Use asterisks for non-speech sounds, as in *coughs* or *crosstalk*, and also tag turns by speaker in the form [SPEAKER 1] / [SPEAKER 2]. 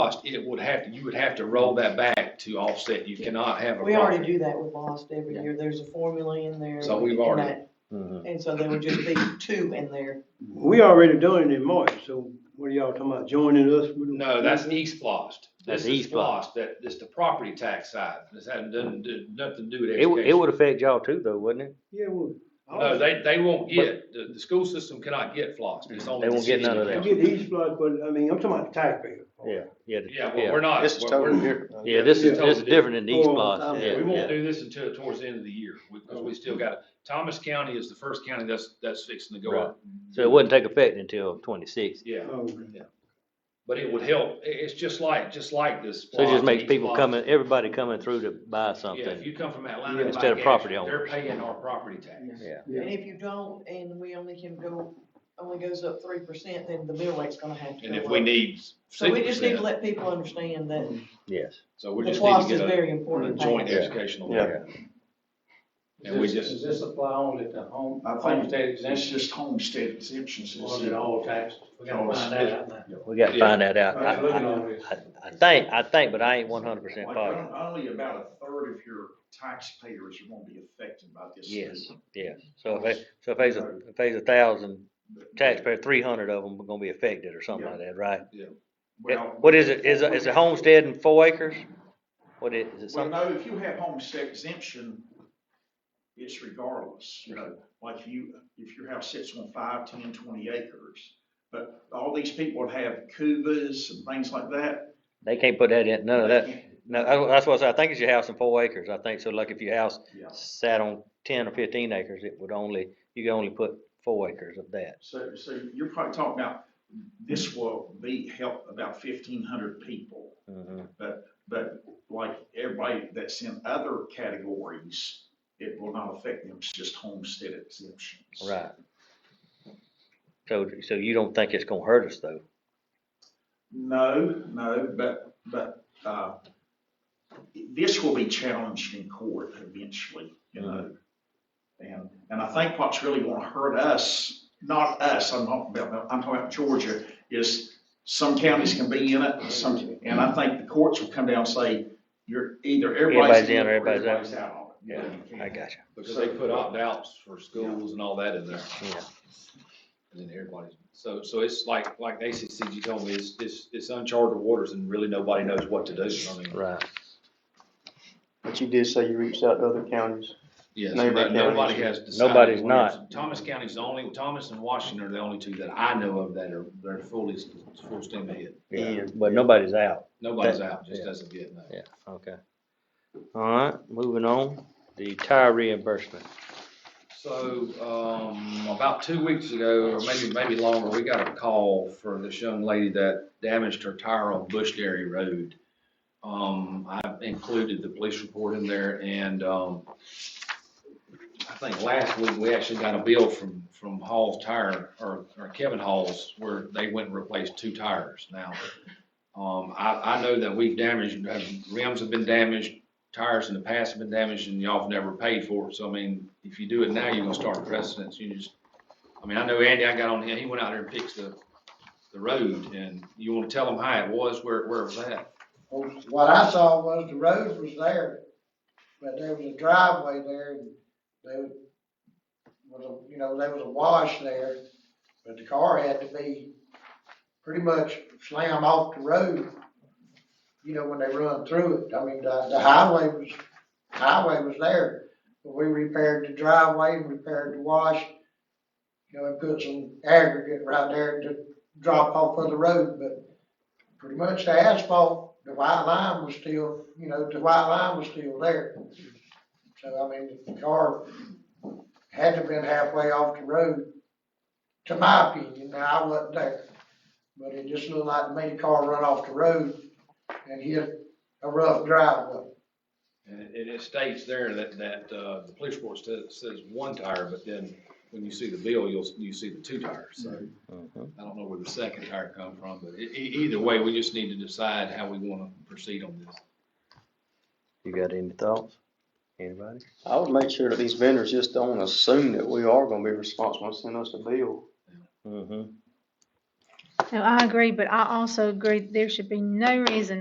[SPEAKER 1] cost, it would have, to. you would have to roll that back to offset. You cannot have a
[SPEAKER 2] We already
[SPEAKER 1] profit.
[SPEAKER 2] do that with lost every year, there's a formula in there.
[SPEAKER 1] So we've
[SPEAKER 2] and
[SPEAKER 1] already-
[SPEAKER 2] that- And so there would just
[SPEAKER 1] *coughs*
[SPEAKER 2] be two in there,
[SPEAKER 3] We already done it in March, so what are y'all talking about, joining us? with-
[SPEAKER 1] No, that's
[SPEAKER 3] Mm-hmm.
[SPEAKER 1] East Floss.
[SPEAKER 4] That's
[SPEAKER 1] This is
[SPEAKER 4] East Floss.
[SPEAKER 1] Floss, that, it's the property tax side. This had nothing, to do- nothing to do with
[SPEAKER 4] It, would- it
[SPEAKER 1] education.
[SPEAKER 4] would affect y'all too though, wouldn't it?
[SPEAKER 3] Yeah, well.
[SPEAKER 1] No, they, they won't get, the, the school system cannot get floss. It's only.
[SPEAKER 4] Mm-hmm. They
[SPEAKER 1] the
[SPEAKER 4] won't get
[SPEAKER 1] city
[SPEAKER 4] none of
[SPEAKER 3] I
[SPEAKER 4] that.
[SPEAKER 1] can.
[SPEAKER 3] get East Flood, but I mean, I'm talking about the taxpayer.
[SPEAKER 4] Yeah, yeah. the-
[SPEAKER 1] Oh, Yeah, well, we're not.
[SPEAKER 5] This is
[SPEAKER 1] we're-
[SPEAKER 5] totally different.
[SPEAKER 4] Yeah, this is,
[SPEAKER 1] Yeah.
[SPEAKER 4] this is different than the East
[SPEAKER 3] Oh,
[SPEAKER 4] Boston,
[SPEAKER 3] um,
[SPEAKER 4] yeah,
[SPEAKER 1] We
[SPEAKER 4] yeah.
[SPEAKER 1] won't do this until towards the end of the year, because we still got, Thomas County is the first county that's, that's fixing to go up.
[SPEAKER 4] So it wouldn't take effect until twenty-six.
[SPEAKER 1] Yeah,
[SPEAKER 3] Oh,
[SPEAKER 1] but it would help. I- it's just like, just like this.
[SPEAKER 4] So it just
[SPEAKER 1] Floss,
[SPEAKER 4] makes
[SPEAKER 1] East
[SPEAKER 4] people
[SPEAKER 1] Floss.
[SPEAKER 4] coming, everybody coming through to buy
[SPEAKER 1] Yeah, if
[SPEAKER 4] something.
[SPEAKER 1] you come from Atlanta and buy
[SPEAKER 4] Instead of
[SPEAKER 1] gas,
[SPEAKER 4] property
[SPEAKER 1] they're
[SPEAKER 4] owners.
[SPEAKER 1] paying our property tax.
[SPEAKER 4] Yeah.
[SPEAKER 3] yeah.
[SPEAKER 2] and if you don't, and we only can go, only goes up three percent, then the mill rate's gonna have to
[SPEAKER 1] And if
[SPEAKER 2] go
[SPEAKER 1] we
[SPEAKER 2] up.
[SPEAKER 1] need
[SPEAKER 2] So
[SPEAKER 1] six
[SPEAKER 2] we just need to
[SPEAKER 1] percent,
[SPEAKER 2] let people understand that
[SPEAKER 4] Yes.
[SPEAKER 1] so we
[SPEAKER 2] the
[SPEAKER 1] just need
[SPEAKER 2] cost
[SPEAKER 1] to
[SPEAKER 2] is
[SPEAKER 1] get a-
[SPEAKER 2] very
[SPEAKER 1] a
[SPEAKER 2] important.
[SPEAKER 1] joint
[SPEAKER 2] thing.
[SPEAKER 1] educational.
[SPEAKER 5] Yeah.
[SPEAKER 1] And we
[SPEAKER 6] Does this-
[SPEAKER 1] just-
[SPEAKER 6] Does this apply only to home,
[SPEAKER 5] I think-
[SPEAKER 6] homestead
[SPEAKER 5] That's
[SPEAKER 6] exemption,
[SPEAKER 5] just homestead exemptions.
[SPEAKER 6] or is it all taxes? We gotta find that out now.
[SPEAKER 4] We gotta
[SPEAKER 1] Yeah.
[SPEAKER 4] find that out.
[SPEAKER 6] Right,
[SPEAKER 4] I,
[SPEAKER 6] look at
[SPEAKER 4] I-
[SPEAKER 6] all this.
[SPEAKER 4] I- I think, I think, but I ain't one hundred percent
[SPEAKER 5] Like,
[SPEAKER 4] positive.
[SPEAKER 5] on- Only about a third of your taxpayers are gonna be affected by this.
[SPEAKER 4] Yes, yes. So if, they- so if there's, a- if there's a thousand taxpayer, three hundred of them are gonna be affected or something like that, right?
[SPEAKER 5] Well-
[SPEAKER 4] What is it? Is, a- is a homestead in four acres? What is, is it something?
[SPEAKER 5] Well, no, if you have homestead exemption, it's regardless, you know, like you, if your house sits on five, ten, twenty acres. But all these people that have cubas and things like that.
[SPEAKER 4] They can't put that in, none of that.
[SPEAKER 5] they
[SPEAKER 4] No, I- that's what I said, I think it's your house in four acres, I think, so like if your house
[SPEAKER 5] can't- Yeah,
[SPEAKER 4] sat on ten or fifteen acres, it would only, you could only put four acres of that.
[SPEAKER 5] so, so you're probably talking about, this will be, help about fifteen hundred people.
[SPEAKER 4] Mm-hmm.
[SPEAKER 5] But like everybody that's in other categories, it will not affect them, it's just homestead exemptions.
[SPEAKER 4] Right. So, so you don't think it's gonna hurt us though?
[SPEAKER 5] No, no, but, but, uh, this will be challenged in court eventually, you know? And, and I think what's really gonna hurt us, not us, I'm not, I'm talking about Georgia, is some counties can be in it, some, and I think the courts will come down and say, you're either everybody's in or
[SPEAKER 4] Everybody's in or
[SPEAKER 5] everybody's out. of it.
[SPEAKER 4] I got
[SPEAKER 1] Because they put opt-outs for schools and all that in there.
[SPEAKER 4] you, yeah.
[SPEAKER 1] And then everybody's, so, so it's like, like ACCG told me, it's, it's, it's uncharted waters and really nobody knows what to do. I mean,
[SPEAKER 4] Right.
[SPEAKER 7] But you did say you reached out to other counties.
[SPEAKER 1] yes,
[SPEAKER 7] Neighbor
[SPEAKER 1] but
[SPEAKER 7] counties.
[SPEAKER 1] nobody has decided.
[SPEAKER 4] Nobody's
[SPEAKER 1] whether
[SPEAKER 4] not.
[SPEAKER 1] it's- Thomas County's the only, Thomas and Washington are the only two that I know of that are, they're fully, full steam ahead.
[SPEAKER 4] Yeah, but nobody's out.
[SPEAKER 1] Nobody's
[SPEAKER 4] That-
[SPEAKER 1] out, just
[SPEAKER 4] yeah.
[SPEAKER 1] doesn't get no.
[SPEAKER 4] Yeah, okay. All right, moving on, the tire reimbursement.
[SPEAKER 1] So, um, about two weeks ago, or maybe, maybe longer, we got a call for this young lady that damaged her tire on Bush Dairy Road. Um, I included the police report in there and, um, I think last week we actually got a bill from, from Hall's Tire or, or Kevin Hall's where they went and replaced two tires now. Um, I, I know that we've damaged, uh, rims have been damaged, tires in the past have been damaged and y'all have never paid for it. So I mean, if you do it now, you're gonna start precedence. You just, I mean, I know Andy, I got on him, he went out there and fixed the, the road and you wanna tell him how it was, where, where it was at.
[SPEAKER 8] Well, What I saw was the road was there, but there was a driveway there and there was, a you know, there was a wash there, but the car had to be pretty much slammed off the road, you know, when they run through it. I mean, the, the highway was, highway was there. But we repaired the driveway and repaired the wash, you know, and put some aggregate right there to drop off of the road, but pretty much the asphalt, the white line was still, you know, the white line was still there. So, I mean, the car had to been halfway off the road, to my opinion, now I wasn't there. But it just looked like to me, the car run off the road and hit a rough driveway.
[SPEAKER 1] And it, it states there that, that, uh, the police report says, says one tire, but then when you see the bill, you'll, you see the two tires. So
[SPEAKER 4] Mm-hmm.
[SPEAKER 1] I don't know where the second tire come from, but e- e- either way, we just need to decide how we wanna proceed on this.
[SPEAKER 4] You got any thoughts? Anybody?
[SPEAKER 7] I would make sure that these vendors just don't assume that we are gonna be responsible and send us a bill.
[SPEAKER 4] Mm-hmm.
[SPEAKER 9] No, I agree, but I also agree there should be no reason